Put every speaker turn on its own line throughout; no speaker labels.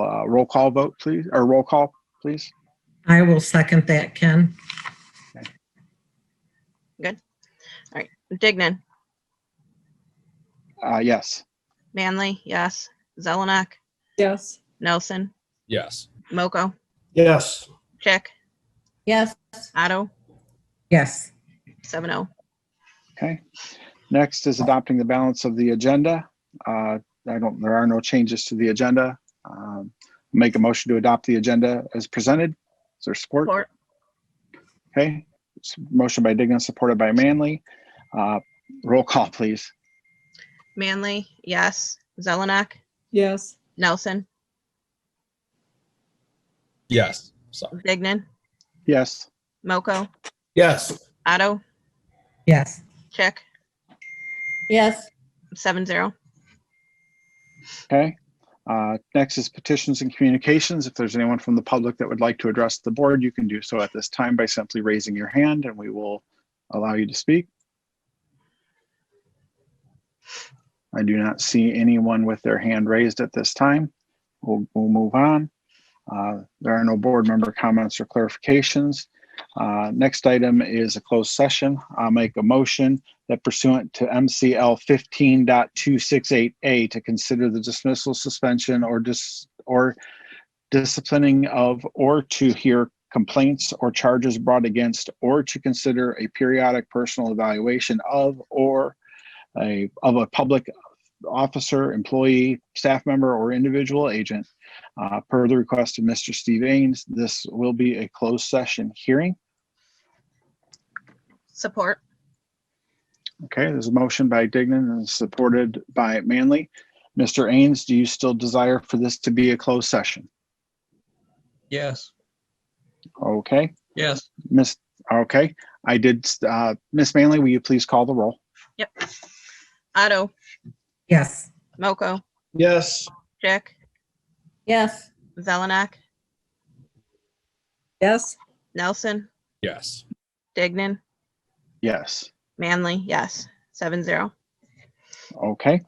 uh, roll call vote, please, or roll call, please.
I will second that, Ken.
Dignan,
Uh, yes.
Manley, yes. Zelenak,
Yes.
Nelson,
Yes.
Moko,
Yes.
Chick,
Yes.
Otto,
Yes,
seven oh.
Okay. Next is adopting the balance of the agenda. Uh, I don't, there are no changes to the agenda. Um, Make a motion to adopt the agenda as presented. Is there support?
Support.
Okay. It's Motion by Dignan, supported by Manley. Uh, Roll call, please.
Manley, yes. Zelenak,
Yes.
Nelson,
Yes. Sorry.
Dignan,
Yes.
Moko,
Yes.
Otto,
yes,
Chick,
Yes.
seven zero.
Okay. Uh, Next is petitions and communications. If there's anyone from the public that would like to address the board, you can do so at this time by simply raising your hand and we will allow you to speak. I do not see anyone with their hand raised at this time. We'll, we'll move on. Uh, There are no board member comments or clarifications. Uh, Next item is a closed session. I'll make a motion that pursuant to MCL 15.268 A to consider the dismissal, suspension, or dis, or disciplining of, or to hear complaints or charges brought against, or to consider a periodic personal evaluation of, or a, of a public officer, employee, staff member, or individual agent. Uh, per the request of Mr. Steve Ains, this will be a closed session hearing.
Support,
Okay, there's a motion by Dignan and supported by Manley. Mr. Ains, do you still desire for this to be a closed session?
Yes.
Okay,
Yes.
Miss, okay, I did, uh, Miss Manley, will you please call the roll?
Otto,
yes.
Moko,
Yes.
Chick,
Yes.
Zelenak,
Yes.
Nelson,
Yes.
Dignan,
Yes.
Manley, yes. Seven zero.
Okay.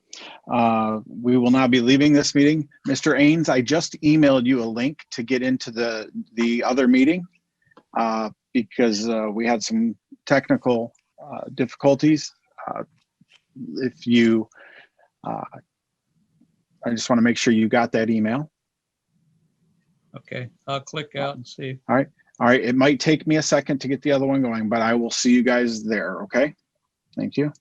Uh, We will now be leaving this meeting. Mr. Ains, I just emailed you a link to get into the, the other meeting uh, because uh, we had some technical uh, difficulties. Uh, If you, uh, I just want to make sure you got that email.
Okay, I'll click out and see.
All right, it might take me a second to get the other one going, but I will see you guys there, okay? Thank you.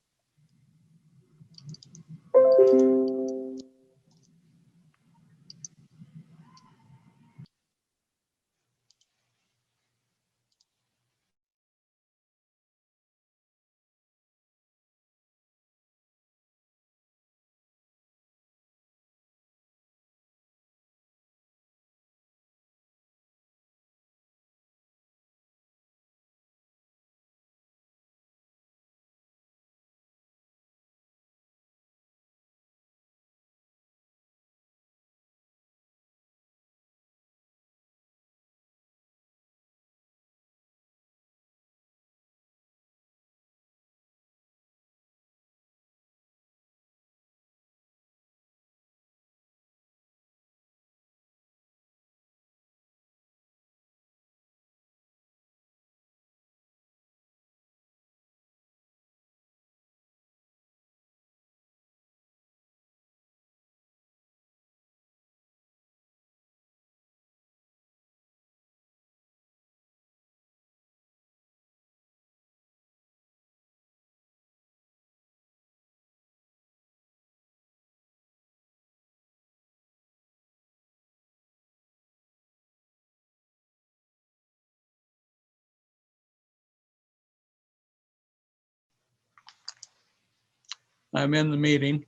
I'm in the meeting.